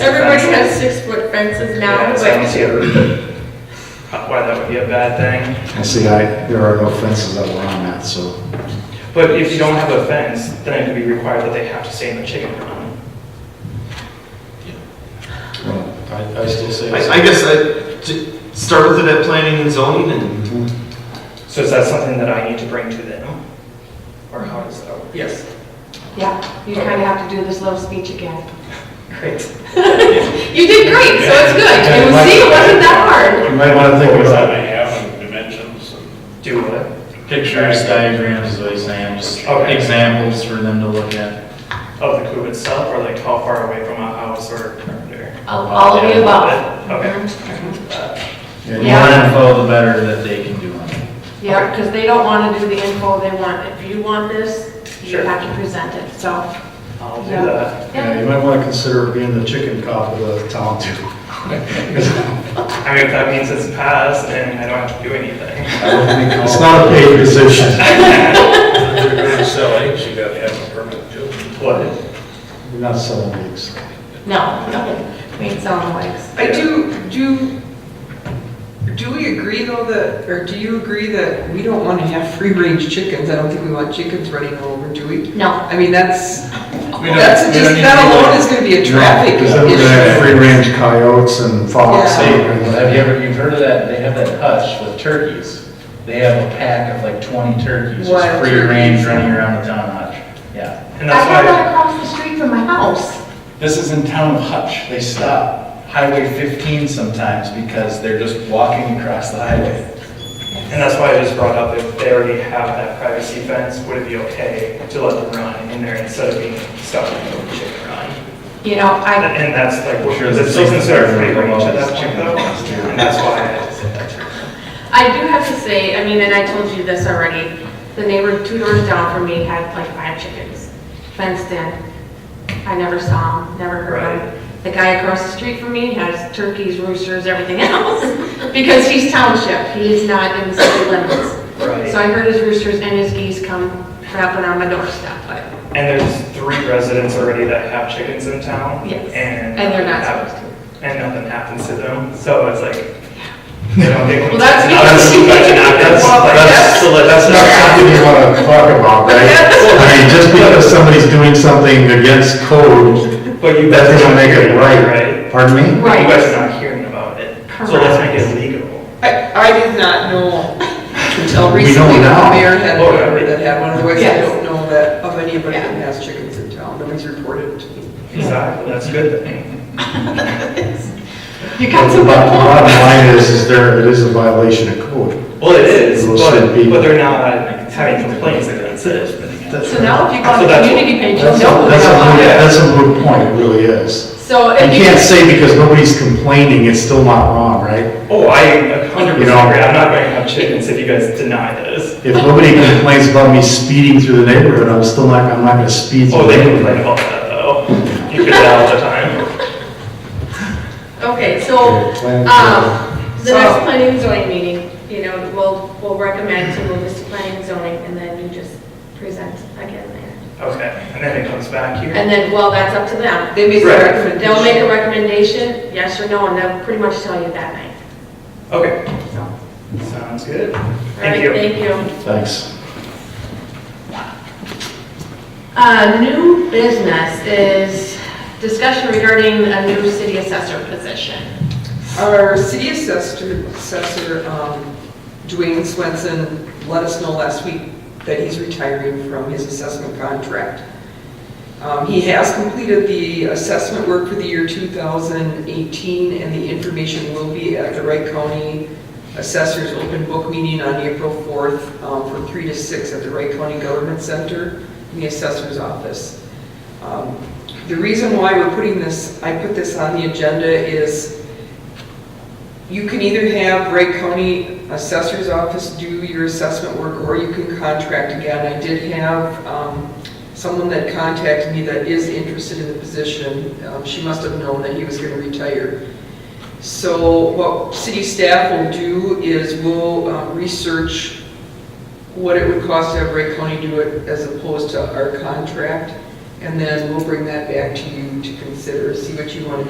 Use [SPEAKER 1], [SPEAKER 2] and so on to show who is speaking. [SPEAKER 1] Everybody has six-foot fences now,
[SPEAKER 2] Yeah, it sounds
[SPEAKER 1] but
[SPEAKER 2] here. Not Why that would be a bad thing.
[SPEAKER 3] And see, I, there are no fences that were on that, so,
[SPEAKER 2] But if you don't have a fence, then it could be required that they have to stay in the chicken run.
[SPEAKER 3] well,
[SPEAKER 4] I, I still say.
[SPEAKER 5] I, I guess I, to start with it at planning and zoning and
[SPEAKER 2] So is that something that I need to bring to them? Or how does that work?
[SPEAKER 1] yes. Yeah, you kind of have to do this love speech again.
[SPEAKER 2] Great.
[SPEAKER 1] You did great, so it's good. And we see, it wasn't that hard.
[SPEAKER 3] you might wanna think
[SPEAKER 6] Always
[SPEAKER 3] about
[SPEAKER 6] have to have and dimensions and
[SPEAKER 2] Do what?
[SPEAKER 4] Pictures, diagrams, is what he's saying, just
[SPEAKER 2] Okay.
[SPEAKER 4] examples for them to look at.
[SPEAKER 2] Of the coop itself, or like how far away from a house or? or-
[SPEAKER 1] All all of the above.
[SPEAKER 2] Okay.
[SPEAKER 4] The
[SPEAKER 1] Mhm.
[SPEAKER 4] more info, the better that they can do on it.
[SPEAKER 1] Yeah, because they don't want to do the info they want. If you want this, you
[SPEAKER 2] Sure.
[SPEAKER 1] have to present it, so.
[SPEAKER 2] I'll do
[SPEAKER 1] Yeah.
[SPEAKER 2] that.
[SPEAKER 3] Yeah, you might wanna consider being the chicken cop of the town too.
[SPEAKER 2] I mean, if that means it's passed and I don't have to do anything.
[SPEAKER 3] It's not a paid position.
[SPEAKER 6] if you're gonna sell eggs, you gotta have a permit too.
[SPEAKER 2] What?
[SPEAKER 3] We're not selling eggs.
[SPEAKER 1] No, no, we ain't selling wigs.
[SPEAKER 7] I do, do, do we agree though that, or do you agree that we don't want to have free-range chickens? I don't think we want chickens running all over, do we?
[SPEAKER 1] No,
[SPEAKER 7] I mean, that's,
[SPEAKER 4] We don't-
[SPEAKER 7] that's
[SPEAKER 4] we don't need
[SPEAKER 7] just,
[SPEAKER 4] to
[SPEAKER 7] that
[SPEAKER 4] be
[SPEAKER 7] alone
[SPEAKER 4] like-
[SPEAKER 7] is going to be a traffic
[SPEAKER 3] Because then we're gonna
[SPEAKER 7] issue.
[SPEAKER 3] have free range coyotes and fox.
[SPEAKER 7] Yeah.
[SPEAKER 4] Hey, have you ever, you've heard of that, they have that hutch with turkeys. They have a pack of like twenty turkeys, just
[SPEAKER 7] Wild
[SPEAKER 4] free range running around the town hutch. Yeah.
[SPEAKER 2] And
[SPEAKER 1] I
[SPEAKER 2] that's
[SPEAKER 1] have
[SPEAKER 2] why,
[SPEAKER 1] that across the street from my house.
[SPEAKER 4] This is in town of Hutch. They stop Highway fifteen sometimes because they're just walking across the highway.
[SPEAKER 2] and that's why I just brought up, if they already have that privacy fence, would it be okay to let them run in there instead of being stuck in the chicken run?
[SPEAKER 1] You know, I,
[SPEAKER 2] And that's like, what-
[SPEAKER 4] Sure,
[SPEAKER 2] that's
[SPEAKER 4] that's
[SPEAKER 2] still
[SPEAKER 4] like-
[SPEAKER 2] considered free range at that point
[SPEAKER 4] Chicken
[SPEAKER 2] though,
[SPEAKER 4] breast, yeah.
[SPEAKER 2] and that's why I had to say that.
[SPEAKER 1] I do have to say, I mean, and I told you this already, the neighbor two doors down from me had like five chickens fenced in. I never saw them, never heard
[SPEAKER 2] Right.
[SPEAKER 1] them. The guy across the street from me has turkeys, roosters, everything else, because he's township, he is not in the city limits.
[SPEAKER 2] Right.
[SPEAKER 1] So I heard his roosters and his geese come trapping on my doorstep, but
[SPEAKER 2] And there's three residents already that have chickens in town.
[SPEAKER 1] Yes.
[SPEAKER 2] And.
[SPEAKER 1] And they're not
[SPEAKER 2] have-
[SPEAKER 1] supposed
[SPEAKER 2] And nothing happens to them, so it's like, they don't get.
[SPEAKER 1] Well, that's me.
[SPEAKER 2] That's, that's,
[SPEAKER 3] That's, that's, that's not something you wanna talk about, right? I mean, just because somebody's doing something against code,
[SPEAKER 2] but you.
[SPEAKER 3] that
[SPEAKER 2] guys
[SPEAKER 3] doesn't
[SPEAKER 2] aren't
[SPEAKER 3] make it
[SPEAKER 2] hearing about it,
[SPEAKER 3] right. Pardon me?
[SPEAKER 2] But You
[SPEAKER 1] Right.
[SPEAKER 2] guys are not hearing about it, so let's make it legal.
[SPEAKER 7] I, I did not know until
[SPEAKER 3] We
[SPEAKER 7] recently
[SPEAKER 3] know
[SPEAKER 7] that
[SPEAKER 3] now.
[SPEAKER 7] the mayor had
[SPEAKER 2] Oh,
[SPEAKER 7] a
[SPEAKER 2] yeah.
[SPEAKER 7] neighbor that had one, otherwise I
[SPEAKER 1] Yes.
[SPEAKER 7] don't know that of anybody that
[SPEAKER 1] Yeah.
[SPEAKER 7] has chickens in town, nobody's reported to me.
[SPEAKER 2] Exactly, that's a good thing.
[SPEAKER 1] you
[SPEAKER 3] But
[SPEAKER 1] got
[SPEAKER 3] The
[SPEAKER 1] some.
[SPEAKER 3] bo- the bottom line is, is there, it is a violation of code.
[SPEAKER 2] Well, it is,
[SPEAKER 3] Well, should
[SPEAKER 2] but,
[SPEAKER 3] be.
[SPEAKER 2] but they're not having complaints against it.
[SPEAKER 1] So now if you go on
[SPEAKER 2] So
[SPEAKER 1] the
[SPEAKER 2] that's-
[SPEAKER 1] community page, you'll
[SPEAKER 3] That's, a-
[SPEAKER 1] know.
[SPEAKER 3] that's a,
[SPEAKER 1] who they
[SPEAKER 3] moot-
[SPEAKER 1] are.
[SPEAKER 3] that's a moot point, it really is.
[SPEAKER 1] So
[SPEAKER 3] You
[SPEAKER 1] if you.
[SPEAKER 3] can't say because nobody's complaining, it's still not wrong, right?
[SPEAKER 2] Oh, I a hundred
[SPEAKER 3] You
[SPEAKER 2] percent
[SPEAKER 3] know-
[SPEAKER 2] agree, I'm not going to have chickens if you guys deny this.
[SPEAKER 3] If nobody complains about me speeding through the neighborhood, I'm still not, I'm not gonna speed through
[SPEAKER 2] Oh, they
[SPEAKER 3] the neighborhood.
[SPEAKER 2] complain about that though, you get that all the time.
[SPEAKER 1] Okay, so,
[SPEAKER 3] Okay, planning
[SPEAKER 1] um, the
[SPEAKER 7] So-
[SPEAKER 1] next planning and zoning meeting, you know, we'll, we'll recommend to move this to planning and zoning, and then you just present again there.
[SPEAKER 2] Okay, and then it comes back here.
[SPEAKER 1] And then, well, that's up to them.
[SPEAKER 7] They made
[SPEAKER 2] Right.
[SPEAKER 7] a recommendation.
[SPEAKER 1] They'll make a recommendation, yes or no, and they'll pretty much tell you that night.
[SPEAKER 2] Okay. Sounds good. Thank
[SPEAKER 1] Right,
[SPEAKER 2] you.
[SPEAKER 1] Thank
[SPEAKER 2] Um,
[SPEAKER 1] you.
[SPEAKER 3] Thanks.
[SPEAKER 1] Uh, new business is discussion regarding a new city assessor position.
[SPEAKER 7] Our city assessor, assessor, um, Dwayne Swenson, let us know last week that he's retiring from his assessment contract. Um, He has completed the assessment work for the year 2018, and the information will be at the Wright County Assessor's Open Book Meeting on April 4th um, from 3 to 6 at the Wright County Government Center in the Assessor's Office. Um, The reason why we're putting this, I put this on the agenda is you can either have Wright County Assessor's Office do your assessment work, or you can contract again. I did have um, someone that contacted me that is interested in the position. Um, She must have known that he was going to retire. So what city staff will do is we'll um, research what it would cost to have Wright County do it as opposed to our contract, and then we'll bring that back to you to consider, see what you want to